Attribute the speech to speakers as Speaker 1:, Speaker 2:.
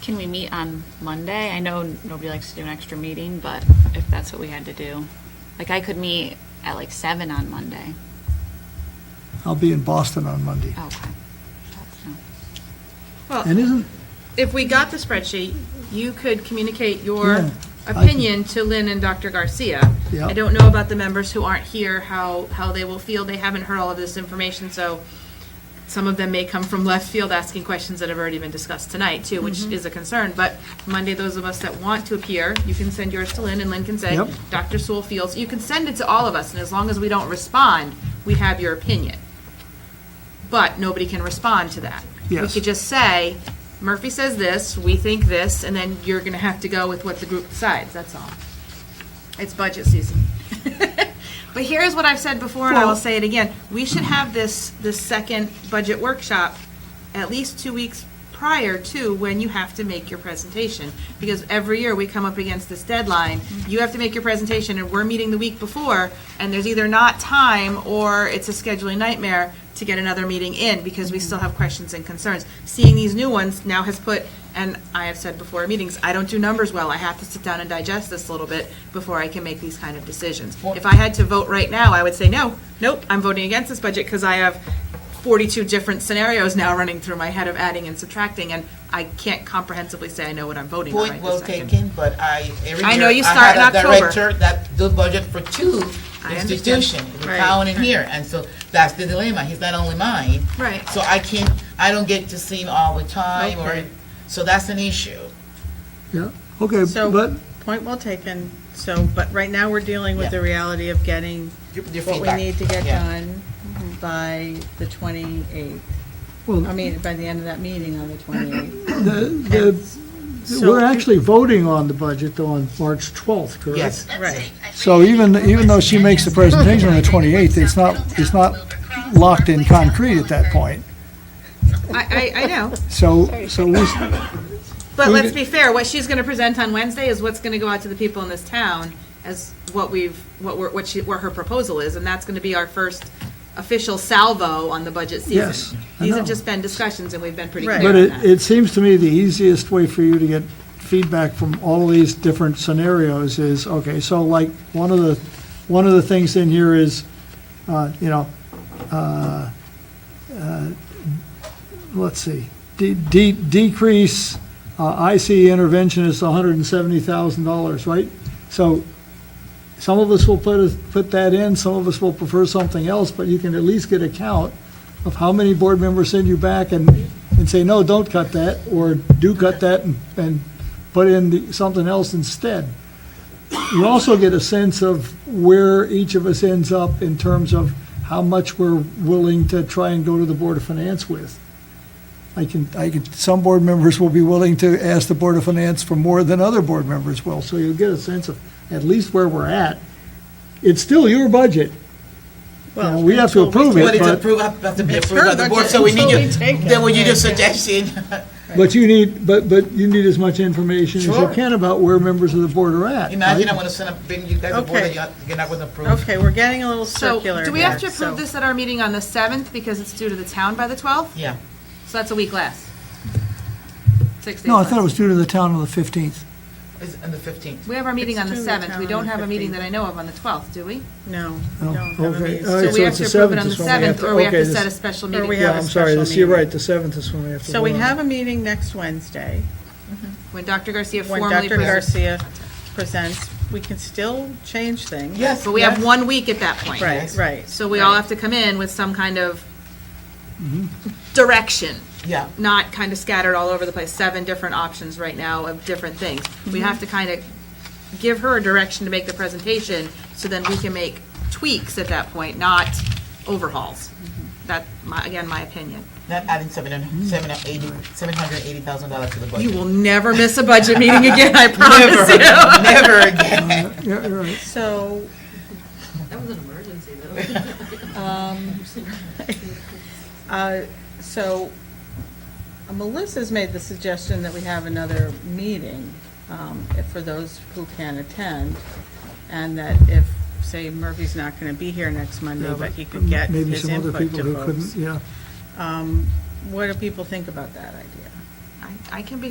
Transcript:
Speaker 1: Can we meet on Monday? I know nobody likes to do an extra meeting, but if that's what we had to do. Like, I could meet at like seven on Monday.
Speaker 2: I'll be in Boston on Monday.
Speaker 1: Oh, Okay. That's no-
Speaker 2: And isn't,
Speaker 3: If we got the spreadsheet, you could communicate your
Speaker 2: Yeah, I can-
Speaker 3: opinion to Lynn and Dr. Garcia.
Speaker 2: Yeah.
Speaker 3: I don't know about the members who aren't here, how, how they will feel. They haven't heard all of this information, so some of them may come from left field asking questions that have already been discussed tonight, too, which
Speaker 2: Mm-hmm.
Speaker 3: is a concern. But Monday, those of us that want to appear, you can send yours to Lynn, and Lynn can say,
Speaker 2: Yep.
Speaker 3: Dr. Sewell feels, you can send it to all of us, and as long as we don't respond, we have your opinion. But nobody can respond to that. We
Speaker 2: Yes.
Speaker 3: could just say, Murphy says this, we think this, and then you're gonna have to go with what the group decides, that's all. It's budget season. But here's what I've said before, and I will say it again, we should have this, this second budget workshop at least two weeks prior to when you have to make your presentation. Because every year we come up against this deadline, you have to make your presentation, and we're meeting the week before, and there's either not time, or it's a scheduling nightmare to get another meeting in, because we still have questions and concerns. Seeing these new ones now has put, and I have said before in meetings, I don't do numbers well, I have to sit down and digest this a little bit before I can make these kind of decisions. If I had to vote right now, I would say, no, nope, I'm voting against this budget, because I have 42 different scenarios now running through my head of adding and subtracting, and I can't comprehensively say I know what I'm voting on
Speaker 4: Point
Speaker 3: right
Speaker 4: well
Speaker 3: this second.
Speaker 4: taken, but I, every
Speaker 3: I
Speaker 4: year,
Speaker 3: know
Speaker 4: I
Speaker 3: you start
Speaker 4: had
Speaker 3: in
Speaker 4: a
Speaker 3: October.
Speaker 4: director that do budget for two
Speaker 3: I understand.
Speaker 4: institutions, the
Speaker 3: Right,
Speaker 4: town and here, and so that's the dilemma, he's not only mine.
Speaker 3: Right.
Speaker 4: So I can't, I don't get to see him all the time, or,
Speaker 3: Okay.
Speaker 4: so that's an issue.
Speaker 2: yeah, okay,
Speaker 5: So-
Speaker 2: but,
Speaker 5: Point well taken, so, but right now we're dealing with the reality of getting
Speaker 4: Your- your
Speaker 5: what we
Speaker 4: feedback.
Speaker 5: need to get
Speaker 4: Yeah.
Speaker 5: done by the 28th. I
Speaker 2: well,
Speaker 5: mean, by the end of that meeting on the 28th.
Speaker 2: the, the,
Speaker 5: So-
Speaker 2: we're actually voting on the budget though on March 12th, correct?
Speaker 4: Yes,
Speaker 5: Right.
Speaker 2: So even, even though she makes the presentation on the 28th, it's not, it's not locked in concrete at that point.
Speaker 3: I, I, I know,
Speaker 2: So, so we,
Speaker 3: but
Speaker 2: We
Speaker 3: let's
Speaker 2: did-
Speaker 3: be fair, what she's gonna present on Wednesday is what's gonna go out to the people in this town as what we've, what we're, what she, what her proposal is, and that's gonna be our first official salvo on the budget season.
Speaker 2: Yes, I
Speaker 3: These
Speaker 2: know.
Speaker 3: have just been discussions, and we've been pretty
Speaker 5: Right.
Speaker 3: clear
Speaker 2: but
Speaker 3: on
Speaker 2: it,
Speaker 3: that.
Speaker 2: it seems to me the easiest way for you to get feedback from all these different scenarios is, okay, so like, one of the, one of the things in here is, uh, you know, uh, uh, let's see, de- de- decrease, uh, IC intervention is hundred and seventy thousand dollars, right? So, some of us will put, a- put that in, some of us will prefer something else, but you can at least get a count of how many board members send you back and, and say, no, don't cut that, or do cut that and, and put in the- something else instead. You also get a sense of where each of us ends up in terms of how much we're willing to try and go to the Board of Finance with. I can, I can, some board members will be willing to ask the Board of Finance for more than other board members will, so you'll get a sense of at least where we're at. It's still your budget. Now, we have to approve it,
Speaker 4: but it's
Speaker 2: but,
Speaker 4: approved, has to be approved
Speaker 5: her
Speaker 4: by the board,
Speaker 5: budget,
Speaker 4: so we
Speaker 5: so
Speaker 4: need your,
Speaker 5: we take it.
Speaker 4: then we need your suggestion.
Speaker 2: but you need, but, but you need as much information as you
Speaker 4: Sure.
Speaker 2: can about where members of the board are at.
Speaker 4: Imagine
Speaker 2: right?
Speaker 4: I wanna send a, bring you guys a board,
Speaker 5: Okay.
Speaker 4: and you're not- you're not gonna approve.
Speaker 5: Okay, we're getting a little
Speaker 3: So,
Speaker 5: circular
Speaker 3: do we have to
Speaker 5: here, so-
Speaker 3: approve this at our meeting on the seventh, because it's due to the town by the twelfth?
Speaker 4: Yeah,
Speaker 3: So that's a week less. Six days
Speaker 2: No, I
Speaker 3: less.
Speaker 2: thought it was due to the town on the 15th.
Speaker 4: it's on the fifteenth.
Speaker 3: We have our meeting
Speaker 5: It's
Speaker 3: on the
Speaker 5: due to
Speaker 3: seventh.
Speaker 5: town
Speaker 3: We
Speaker 5: on
Speaker 3: don't
Speaker 5: the
Speaker 3: have a meeting
Speaker 5: 15th.
Speaker 3: that I know of on the twelfth, do we?
Speaker 5: No, we
Speaker 2: No,
Speaker 5: don't have a
Speaker 2: Oh, okay.
Speaker 5: meeting.
Speaker 2: All right,
Speaker 3: So
Speaker 5: So
Speaker 2: so
Speaker 3: we have
Speaker 2: it's
Speaker 3: to
Speaker 2: the
Speaker 3: approve it
Speaker 2: 7th
Speaker 3: on the
Speaker 2: is when we have
Speaker 3: seventh,
Speaker 2: to-
Speaker 3: or we have
Speaker 2: okay,
Speaker 3: to
Speaker 2: this-
Speaker 3: set a special
Speaker 5: or we
Speaker 3: meeting
Speaker 5: have-
Speaker 2: Yeah,
Speaker 5: a
Speaker 2: I'm sorry,
Speaker 5: special
Speaker 2: this, you're
Speaker 5: meeting.
Speaker 2: right, the 7th is when we have to.
Speaker 5: So we
Speaker 2: vote on Uh, it.
Speaker 5: have a meeting next Wednesday,
Speaker 3: when Dr. Garcia
Speaker 5: when
Speaker 3: formally
Speaker 5: Dr.
Speaker 3: presents.
Speaker 5: Garcia presents, we can still change things.
Speaker 4: Yes,
Speaker 3: But we have
Speaker 4: yes.
Speaker 3: one week at that point.
Speaker 5: Right, right.
Speaker 3: So we all have to come in with some kind of direction,
Speaker 4: Yeah,
Speaker 3: not kind of scattered all over the place, seven different options right now of different things. We have to kind of give her a direction to make the presentation, so then we can make tweaks at that point, not overhauls. That, my, again, my opinion.
Speaker 4: not adding seven hundred, seven hundred eighty, seven hundred eighty thousand dollars to the budget.
Speaker 3: You will never miss a budget meeting again, I promise you.
Speaker 4: Never, never again.
Speaker 2: Yeah, you're right.
Speaker 5: So. That was an emergency, though. um, So, uh, Melissa's made the suggestion that we have another meeting um, if- for those who can attend, and that if, say, Murphy's not going to be here next Monday, but he could get
Speaker 2: Maybe
Speaker 5: his
Speaker 2: some other
Speaker 5: input
Speaker 2: people
Speaker 5: to
Speaker 2: who couldn't,
Speaker 5: folks.
Speaker 2: yeah.
Speaker 5: Um, What do people think about that idea?
Speaker 3: I, I can be